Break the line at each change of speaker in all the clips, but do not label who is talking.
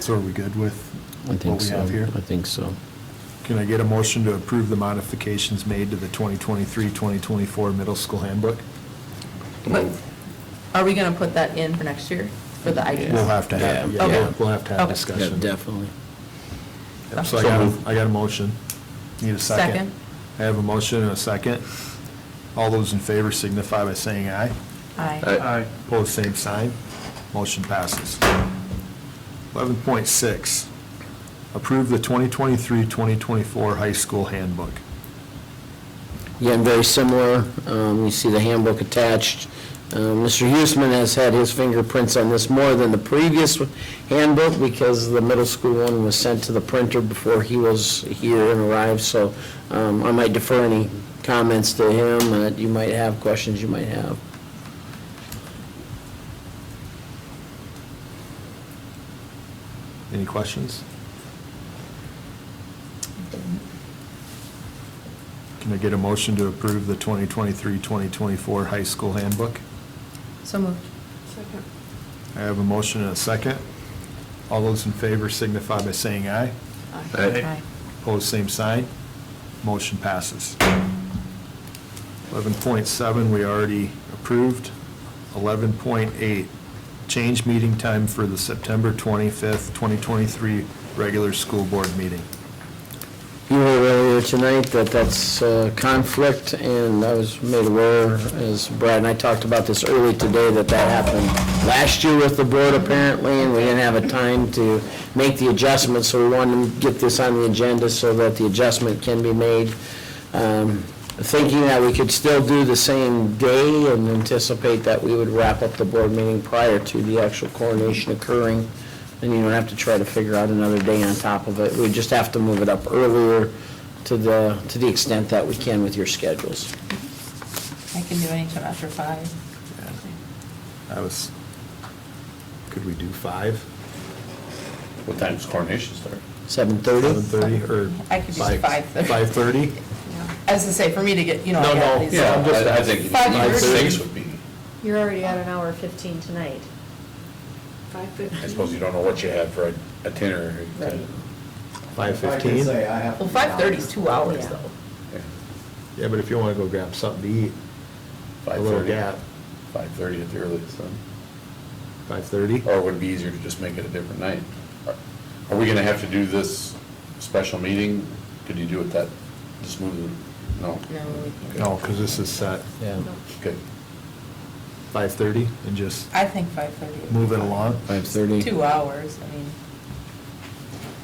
So are we good with
I
with
think
what we
so.
have here?
I think so.
Can I get a motion to approve the modifications made to the 2023-2024 middle school handbook?
But Are we going to put that in for next year, for the IDs?
We'll have to have, yeah, we'll-
Okay.
we'll have to have
Okay.
Yeah,
discussion.
definitely.
So I got, a- I got a motion. Need a second?
Second.
I have a motion and a second. All those in favor signify by saying aye.
Aye.
Pose same sign. Motion passes. 11.6, approve the 2023-2024 high school handbook.
Again, very similar. Um, You see the handbook attached. Um, Mr. Huesman has had his fingerprints on this more than the previous handbook because the middle school one was sent to the printer before he was here and arrived, so um, I might defer any comments to him that you might have, questions you might have.
Any questions? Can I get a motion to approve the 2023-2024 high school handbook?
So moved.
I have a motion and a second. All those in favor signify by saying aye.
Aye.
Opposed, same sign. Motion passes. 11.7, we already approved. 11.8, change meeting time for the September 25th, 2023 regular school board meeting.
You were earlier tonight that that's uh, conflict, and I was made aware, as Brad and I talked about this early today, that that happened last year with the board apparently, and we didn't have a time to make the adjustment, so we wanted to get this on the agenda so that the adjustment can be made. Um, Thinking that we could still do the same day and anticipate that we would wrap up the board meeting prior to the actual coronation occurring. And you don't have to try to figure out another day on top of it. We just have to move it up earlier to the, to the extent that we can with your schedules.
I can do anytime after five.
I was, could we do 5?
What time's coronation start?
7:30?
7:30 or?
I could do 5:30.
5:30?
As I say, for me to get, you know. I
No,
got
no,
these-
yeah, I'm just
I I
asking.
think
Five
five,
years.
six would be,
You're already at an hour 15 tonight.
I suppose you don't know what you have for a a dinner.
Right.
5:15?
Well, five thirty is two hours
Yeah.
though.
Yeah, but if you want to go grab something to eat, a
Five
little
thirty.
gap,
Five thirty at the earliest, then.
5:30?
Or would it be easier to just make it a different night? Are- Are we gonna have to do this special meeting? Could you do it that, just move it? No?
No, we
No, because this is set
Yeah.
Okay.
5:30 and just
I think five thirty.
move it along.
5:30?
Two hours, I mean,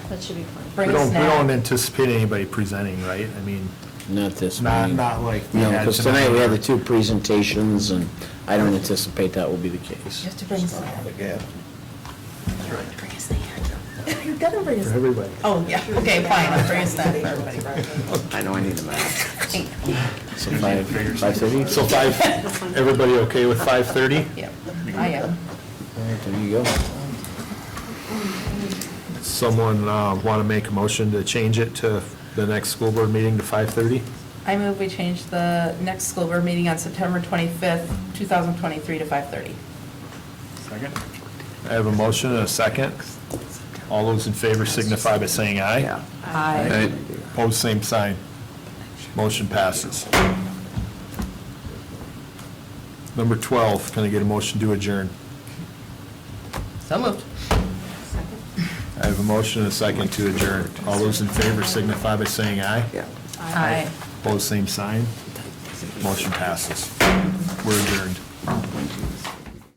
That should be
We
Bring
fine.
a
don't, we
snack.
don't anticipate anybody presenting, right? I mean,
Not this
not,
meeting.
not like. we
No,
had
because tonight we had the two presentations, and I don't anticipate that will be the case.
you have to bring us there.
Yeah.
Bring us there. You gotta bring us.
For everybody.
Oh, yeah, okay, fine, I'll bring us there for everybody.
I know I need a map.
Thank you.
So 5, 5:30?
So five, everybody okay with 5:30?
Yeah, I am.
All right, There you go.
Someone want to make a motion to change it to the next school board meeting to 5:30?
I move we change the next school board meeting on September 25th, 2023 to 5:30.
I have a motion and a second. All those in favor signify by saying aye.
Aye.
Pose same sign. Motion passes. Number 12, can I get a motion to adjourn?
So moved.
I have a motion and a second to adjourn. All those in favor signify by saying aye.
Aye.
Pose same sign. Motion passes. We're adjourned.